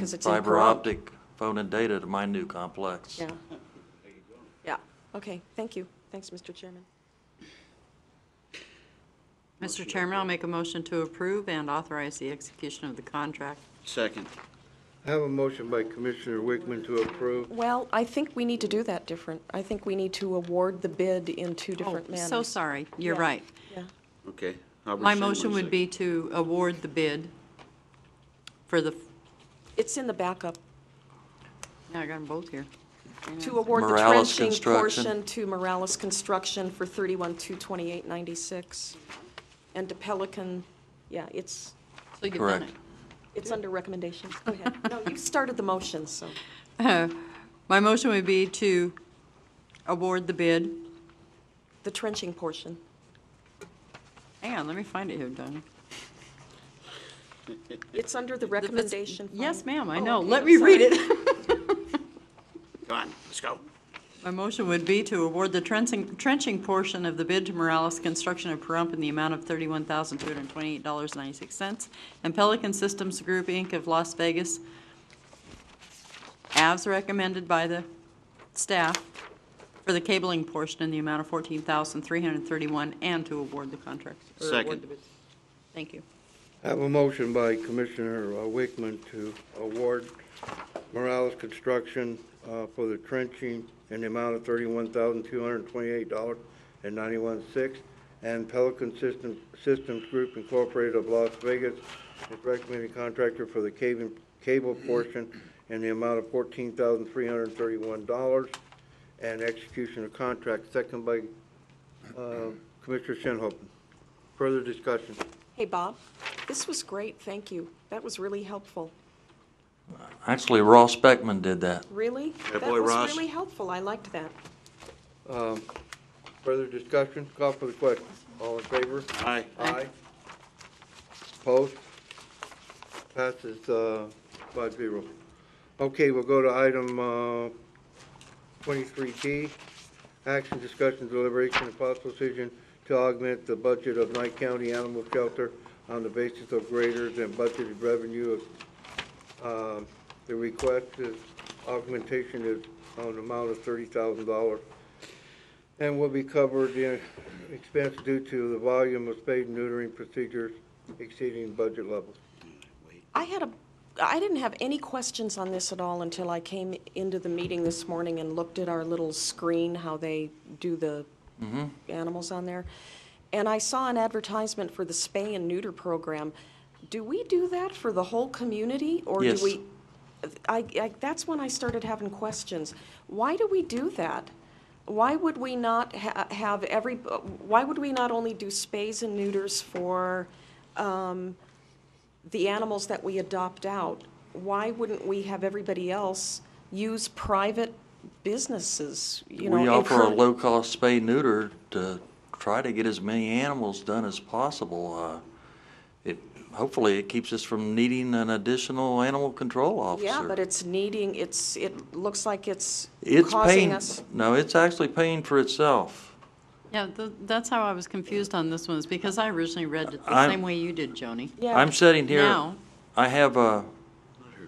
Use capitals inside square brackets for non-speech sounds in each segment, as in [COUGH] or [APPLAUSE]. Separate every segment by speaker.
Speaker 1: Because it's in
Speaker 2: fiber
Speaker 1: Pahrump.
Speaker 2: optic phone and data to my new complex.
Speaker 1: Yeah. Yeah, okay, thank you. Thanks, Mr. Chairman.
Speaker 3: Mr. Chairman, I'll make a motion to approve and authorize the execution of the contract.
Speaker 1: Oh,
Speaker 4: Second.
Speaker 5: I have a motion by Commissioner Wickman to approve.
Speaker 1: Well, I think we need to do that different. I think we need to award the bid in two
Speaker 3: Oh,
Speaker 1: different manners.
Speaker 3: so sorry, you're
Speaker 1: Yeah.
Speaker 3: right.
Speaker 1: Yeah.
Speaker 4: Okay. I'll
Speaker 3: My
Speaker 4: rescind
Speaker 3: motion would
Speaker 4: second.
Speaker 3: be to award the bid for the,
Speaker 1: It's in the backup,
Speaker 3: yeah, I got them both here.
Speaker 1: to award the
Speaker 2: Morales
Speaker 1: trenching
Speaker 2: Construction.
Speaker 1: portion to Morales Construction for thirty-one, two, twenty-eight, ninety-six. And to Pelican, yeah, it's,
Speaker 3: So you've done
Speaker 2: Correct.
Speaker 3: it.
Speaker 1: it's under recommendations. Go [LAUGHS] ahead. No, you started the motion, so.
Speaker 3: My motion would be to award the bid,
Speaker 1: The trenching portion.
Speaker 3: hang on, let me find it here, Donna.
Speaker 1: It's under the recommendation.
Speaker 3: Yes,
Speaker 1: file.
Speaker 3: ma'am, I
Speaker 1: Oh,
Speaker 3: know,
Speaker 1: okay,
Speaker 3: let
Speaker 1: I'm
Speaker 3: me read
Speaker 1: sorry.
Speaker 3: it.
Speaker 4: Come on, let's go.
Speaker 3: My motion would be to award the trenching, trenching portion of the bid to Morales Construction of Pahrump in the amount of thirty-one thousand, two hundred and twenty-eight dollars, ninety-six cents, and Pelican Systems Group, Inc. of Las Vegas, as recommended by the staff, for the cabling portion in the amount of fourteen thousand, three hundred and thirty-one, and to award the contract. or award
Speaker 4: Second.
Speaker 3: the bid. Thank you.
Speaker 5: I have a motion by Commissioner uh, Wickman to award Morales Construction uh, for the trenching in the amount of thirty-one thousand, two hundred and twenty-eight dollars and ninety-one six, and Pelican System, Systems Group Incorporated of Las Vegas is recommended contractor for the cable, cable portion in the amount of fourteen thousand, three hundred and thirty-one dollars, and execution of contract, second by uh, Commissioner Shinhopin. Further discussion?
Speaker 1: Hey, Bob, this was great, thank you. That was really helpful.
Speaker 2: Actually, Ross Beckman did that.
Speaker 1: Really?
Speaker 4: Yeah, boy,
Speaker 1: That
Speaker 4: Ross.
Speaker 1: was really helpful, I liked that.
Speaker 5: Um, Further discussion, call for the question. All in favor?
Speaker 4: Aye.
Speaker 5: Aye. Opposed? Passes uh, five zero. Okay, we'll go to item uh, twenty-three D. Action, discussion, deliberation, and possible decision to augment the budget of Knight County Animal Shelter on the basis of greater than budgeted revenue of, um, the request is, augmentation is on an amount of thirty thousand dollars and will be covered in expense due to the volume of spade and neutering procedures exceeding budget levels.
Speaker 1: I had a, I didn't have any questions on this at all until I came into the meeting this morning and looked at our little screen, how they do the animals on there. And I saw an advertisement for the spay and neuter program. Do we do that for the whole community, or do
Speaker 2: Yes.
Speaker 1: we? I, I, that's when I started having questions. Why do we do that? Why would we not ha- have every, why would we not only do spays and neuters for, um, the animals that we adopt out, why wouldn't we have everybody else use private businesses, you know?
Speaker 2: We offer a
Speaker 1: encourage-
Speaker 2: low-cost spay neuter to try to get as many animals done as possible. Uh, It, hopefully, it keeps us from needing an additional animal control officer.
Speaker 1: Yeah, but it's needing, it's, it looks like it's
Speaker 2: It's
Speaker 1: causing
Speaker 2: paying,
Speaker 1: us.
Speaker 2: no, it's actually paying for itself.
Speaker 3: Yeah, th- that's how I was confused on this one, is because I originally read it the
Speaker 2: I'm-
Speaker 3: same way you did, Joni.
Speaker 1: Yeah.
Speaker 2: I'm sitting here,
Speaker 3: Now,
Speaker 2: I have a,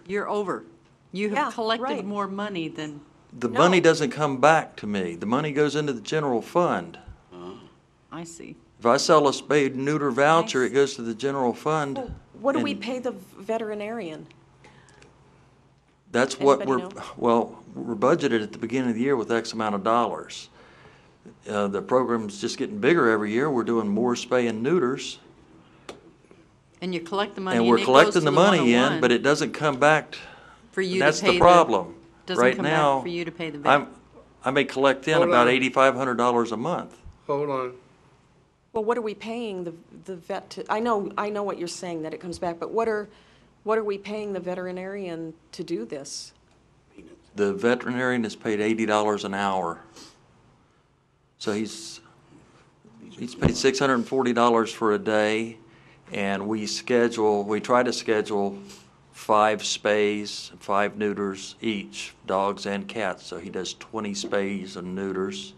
Speaker 3: you're over. You
Speaker 1: Yeah,
Speaker 3: have
Speaker 1: right.
Speaker 3: collected more money than
Speaker 2: the
Speaker 1: No.
Speaker 2: money doesn't come back to me. The money goes into the general fund.
Speaker 3: I see.
Speaker 2: If I sell a spay neuter voucher, it
Speaker 3: Nice.
Speaker 2: goes to the general fund.
Speaker 1: What do we
Speaker 2: and-
Speaker 1: pay the veterinarian?
Speaker 2: That's what
Speaker 1: Anybody
Speaker 2: we're, well, we're budgeted at the beginning of the year with X amount of dollars. Uh, the program's just getting bigger every year. We're doing more spay and neuters.
Speaker 3: And you collect the money
Speaker 2: And
Speaker 3: and
Speaker 2: we're
Speaker 3: it goes
Speaker 2: collecting
Speaker 3: to
Speaker 2: the money in,
Speaker 3: 101
Speaker 2: but it doesn't come back. t-
Speaker 3: for you
Speaker 2: and
Speaker 3: to
Speaker 2: That's
Speaker 3: pay
Speaker 2: the problem.
Speaker 3: doesn't
Speaker 2: Right
Speaker 3: come back
Speaker 2: now,
Speaker 3: for you to pay the bill.
Speaker 2: I'm, I may collect in
Speaker 5: Hold
Speaker 2: about
Speaker 5: on.
Speaker 2: eighty-five hundred dollars a month.
Speaker 5: Hold on,
Speaker 1: Well, what are we paying the, the vet to, I know, I know what you're saying, that it comes back, but what are, what are we paying the veterinarian to do this?
Speaker 2: The veterinarian is paid eighty dollars an hour. So he's, he's paid six hundred and forty dollars for a day, and we schedule, we try to schedule five spays, five neuters each, dogs and cats, so he does twenty spays and neuters,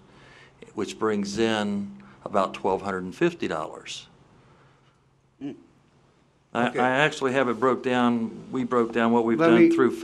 Speaker 2: which brings in about twelve hundred and fifty dollars. I,
Speaker 5: Okay.
Speaker 2: I actually have it broke down, we broke down what we've
Speaker 5: Let me-
Speaker 2: done through